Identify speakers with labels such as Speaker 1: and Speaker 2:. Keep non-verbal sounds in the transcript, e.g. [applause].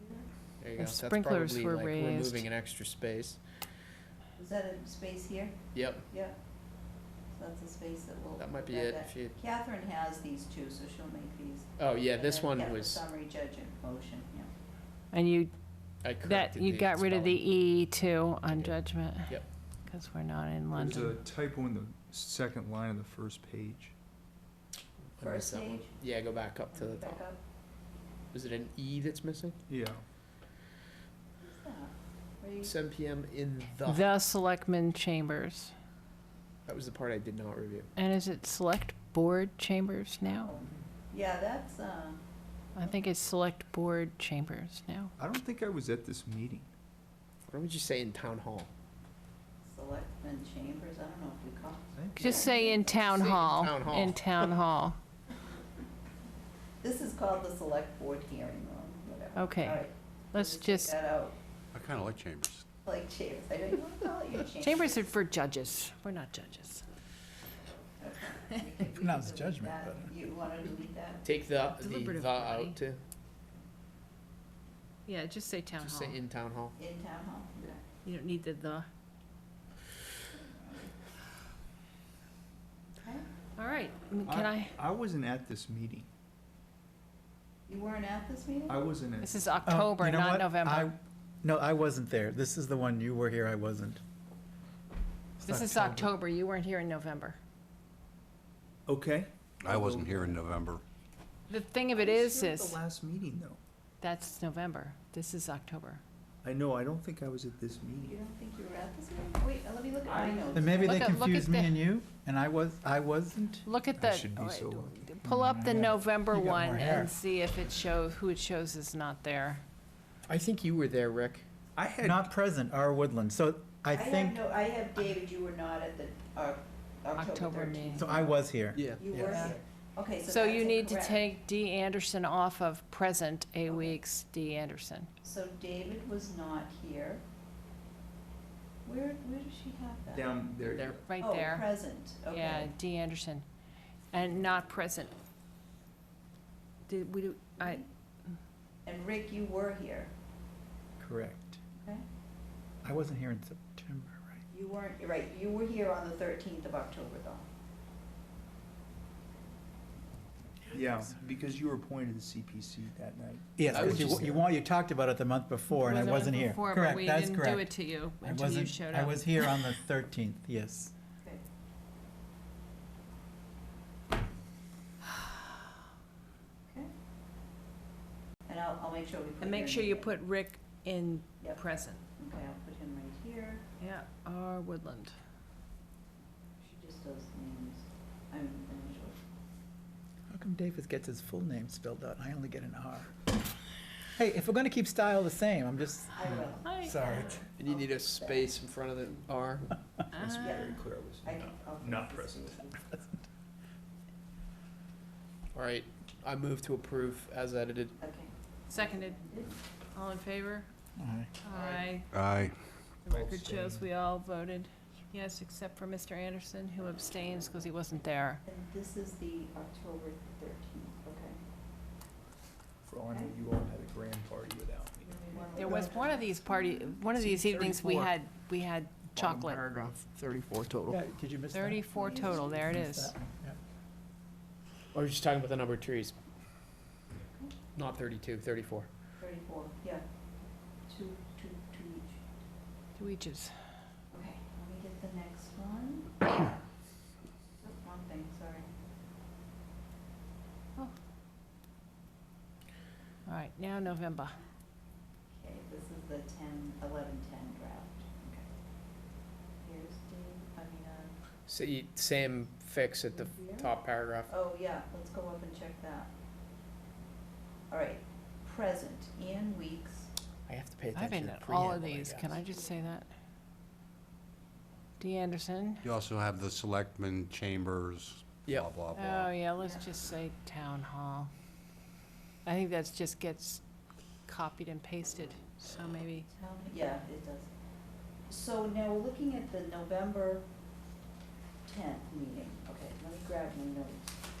Speaker 1: you
Speaker 2: If
Speaker 1: go. That's
Speaker 2: sprinklers
Speaker 1: probably,
Speaker 2: were
Speaker 1: like,
Speaker 2: raised.
Speaker 1: Removing an extra space.
Speaker 3: Is that a space here?
Speaker 1: Yep,
Speaker 3: Yeah. So that's a space that will.
Speaker 1: that might be
Speaker 3: that-
Speaker 1: it.
Speaker 3: that-
Speaker 1: If you,
Speaker 3: Catherine has these two, so she'll make these.
Speaker 1: oh, yeah,
Speaker 3: And
Speaker 1: this
Speaker 3: then get
Speaker 1: one
Speaker 3: the
Speaker 1: was,
Speaker 3: Summary judge and motion, yeah.
Speaker 2: And you,
Speaker 1: I
Speaker 2: that,
Speaker 1: corrected
Speaker 2: you
Speaker 1: the
Speaker 2: got rid of the
Speaker 1: spelling.
Speaker 2: E too on
Speaker 1: did.
Speaker 2: judgment.
Speaker 1: Yep.
Speaker 2: Because we're not in
Speaker 4: There's a
Speaker 2: London.
Speaker 4: typo in the second line of the first page.
Speaker 1: I missed
Speaker 3: First
Speaker 1: that one.
Speaker 3: page?
Speaker 1: Yeah, go back up to the
Speaker 3: Back
Speaker 1: top.
Speaker 3: up.
Speaker 1: Is it an E that's missing?
Speaker 4: Yeah,
Speaker 3: Who's that? Where you-
Speaker 1: Seven PM in the,
Speaker 2: The Selectmen Chambers.
Speaker 1: that was the part I did not review.
Speaker 2: And is it Select Board Chambers now?
Speaker 3: oh. Yeah, that's, uh,
Speaker 2: I think it's Select Board Chambers now.
Speaker 4: I don't think I was at this meeting.
Speaker 1: Why don't you say in town hall?
Speaker 3: selectmen chambers, I don't know if we call.
Speaker 2: Just say in Town
Speaker 1: Say in
Speaker 2: Hall.
Speaker 1: Town Hall.
Speaker 2: In Town Hall.
Speaker 3: This is called the select board hearing room, whatever.
Speaker 2: Okay.
Speaker 3: All right,
Speaker 2: Let's
Speaker 3: take
Speaker 2: just,
Speaker 3: That out,
Speaker 5: I kind of like chambers.
Speaker 3: like chambers, I don't, you wanna call
Speaker 2: [laughs]
Speaker 3: it your chambers. [laughs]
Speaker 2: chambers are for judges. We're not judges.
Speaker 6: Pronounce judgment better.
Speaker 3: You wanna delete that?
Speaker 1: Take the, the
Speaker 2: Deliberative
Speaker 1: the
Speaker 2: body.
Speaker 1: out too.
Speaker 2: Yeah, just say Town
Speaker 1: Just
Speaker 2: Hall.
Speaker 1: say in town hall.
Speaker 3: In town hall, okay.
Speaker 2: You don't need the the.
Speaker 3: Okay.
Speaker 2: All right, m- can I,
Speaker 4: I wasn't at this meeting.
Speaker 3: You weren't at this meeting?
Speaker 4: I wasn't at.
Speaker 2: this is
Speaker 6: Oh, you
Speaker 2: October,
Speaker 6: know
Speaker 2: not
Speaker 6: what?
Speaker 2: November.
Speaker 6: I- No, I wasn't there. This is the one you were here, I wasn't. It's
Speaker 2: This is October, you weren't here in November.
Speaker 4: Okay.
Speaker 5: I wasn't here in November.
Speaker 2: The thing of it is,
Speaker 4: Sure at The
Speaker 2: is,
Speaker 4: last meeting, though.
Speaker 2: that's November, this is October.
Speaker 4: I know, I don't think I was at this
Speaker 3: You
Speaker 4: meeting.
Speaker 3: don't think you were at this meeting? Wait, let me look at my notes.
Speaker 6: And maybe they
Speaker 2: Look at- look at
Speaker 6: confused me
Speaker 2: the-
Speaker 6: and you, and I was, I wasn't.
Speaker 2: Look at
Speaker 4: I
Speaker 2: the, Oh,
Speaker 4: should be so lucky.
Speaker 2: pull up the
Speaker 6: Yeah.
Speaker 2: November
Speaker 6: You Mm, got
Speaker 2: one
Speaker 6: more hair.
Speaker 2: and see if it shows, who it shows is not there.
Speaker 1: I think you were there, Rick.
Speaker 4: I had,
Speaker 6: Not present, our Woodland. So I
Speaker 3: have
Speaker 6: think,
Speaker 3: no- I have, David, you were not at the, uh,
Speaker 2: October
Speaker 3: October
Speaker 2: meeting.
Speaker 3: thirteenth.
Speaker 6: so I was here.
Speaker 1: Yeah.
Speaker 3: You were
Speaker 6: Yeah.
Speaker 3: here. Okay, so
Speaker 2: So you
Speaker 3: that's
Speaker 2: need to
Speaker 3: incorrect.
Speaker 2: take D. Anderson off of present A weeks D. Anderson.
Speaker 3: So David was not here. Where, where does she have that?
Speaker 4: down
Speaker 1: There.
Speaker 4: there.
Speaker 2: right
Speaker 3: Oh,
Speaker 2: there.
Speaker 3: present, okay.
Speaker 2: Yeah, D. Anderson, and not present. Did we, do- I,
Speaker 3: And Rick, you were here,
Speaker 6: Correct.
Speaker 3: okay?
Speaker 6: I wasn't here in September, right?
Speaker 3: You weren't, you're right, you were here on the thirteenth of October though.
Speaker 4: Yeah, because you were appointed to CPC that night.
Speaker 6: Yes,
Speaker 1: I was
Speaker 6: because you,
Speaker 1: just
Speaker 6: you
Speaker 1: there.
Speaker 6: want, you talked about it the month before, and I
Speaker 2: Wasn't
Speaker 6: wasn't here.
Speaker 2: before, but
Speaker 6: Correct,
Speaker 2: we
Speaker 6: that's
Speaker 2: didn't do it
Speaker 6: correct.
Speaker 2: to you
Speaker 6: I
Speaker 2: until you
Speaker 6: wasn't-
Speaker 2: showed
Speaker 6: I
Speaker 2: up.
Speaker 6: was here on the thirteenth, yes.
Speaker 3: Okay. Okay. And I'll, I'll make sure we put.
Speaker 2: And make
Speaker 3: your
Speaker 2: sure you
Speaker 3: name.
Speaker 2: put Rick in
Speaker 3: Yep.
Speaker 2: present.
Speaker 3: Okay, I'll put him right here.
Speaker 2: Yeah, R. Woodland.
Speaker 3: She just does names. I'm I'm sure.
Speaker 6: How come David gets his full name spelled out, and I only get an R? Hey, if we're gonna keep style the same, I'm just,
Speaker 3: I will.
Speaker 2: Hi.
Speaker 6: sorry.
Speaker 1: And you need a space in front of the R.
Speaker 4: It's
Speaker 2: Ah.
Speaker 4: very clear I was.
Speaker 3: I can, I'll. fix
Speaker 4: Not
Speaker 3: this
Speaker 4: present.
Speaker 3: with you.
Speaker 1: All right, I move to approve as edited.
Speaker 3: Okay.
Speaker 2: Seconded. All in favor?
Speaker 6: Aye.
Speaker 2: Aye.
Speaker 5: I,
Speaker 2: The record shows we all voted yes, except for Mr. Anderson, who abstains because he wasn't there.
Speaker 3: And this is the October thirteenth, okay.
Speaker 4: For all I know, you all had a grand party without me.
Speaker 3: Give me one
Speaker 2: There
Speaker 3: more.
Speaker 2: was one of these party, one of
Speaker 1: See,
Speaker 2: these evenings we
Speaker 1: 34.
Speaker 2: had, we had chocolate.
Speaker 1: Paragraph thirty-four total.
Speaker 6: Yeah, did you miss that?
Speaker 2: Thirty-four total, there it
Speaker 6: Missed
Speaker 2: is.
Speaker 6: that one, yeah.
Speaker 1: Or just talking about the number of trees. Not thirty-two, thirty-four.
Speaker 3: Thirty-four, yeah. Two, two, two each.
Speaker 2: Two eaches.
Speaker 3: Okay, let me get the next one. One thing, sorry.
Speaker 2: All right, now November.
Speaker 3: Okay, this is the ten, eleven, ten draft, okay. Here's the, I mean, uh,
Speaker 1: See, same fix at the
Speaker 3: Yeah.
Speaker 1: top paragraph.
Speaker 3: oh, yeah, let's go up and check that. All right, present, Ian Weeks,
Speaker 1: I have to pay
Speaker 2: I've
Speaker 1: attention
Speaker 2: been
Speaker 1: to
Speaker 2: at all of
Speaker 1: preamble,
Speaker 2: these, can
Speaker 1: guess. Oh,
Speaker 2: I just say that? D. Anderson.
Speaker 5: you also have the selectmen chambers,
Speaker 1: Yep.
Speaker 5: blah, blah,
Speaker 2: Oh,
Speaker 5: blah.
Speaker 2: yeah, let's just say town hall. I think that's just gets copied and pasted, so maybe.
Speaker 3: Tell me- yeah, it does. So now we're looking at the November tenth meeting, okay, let me grab my notes.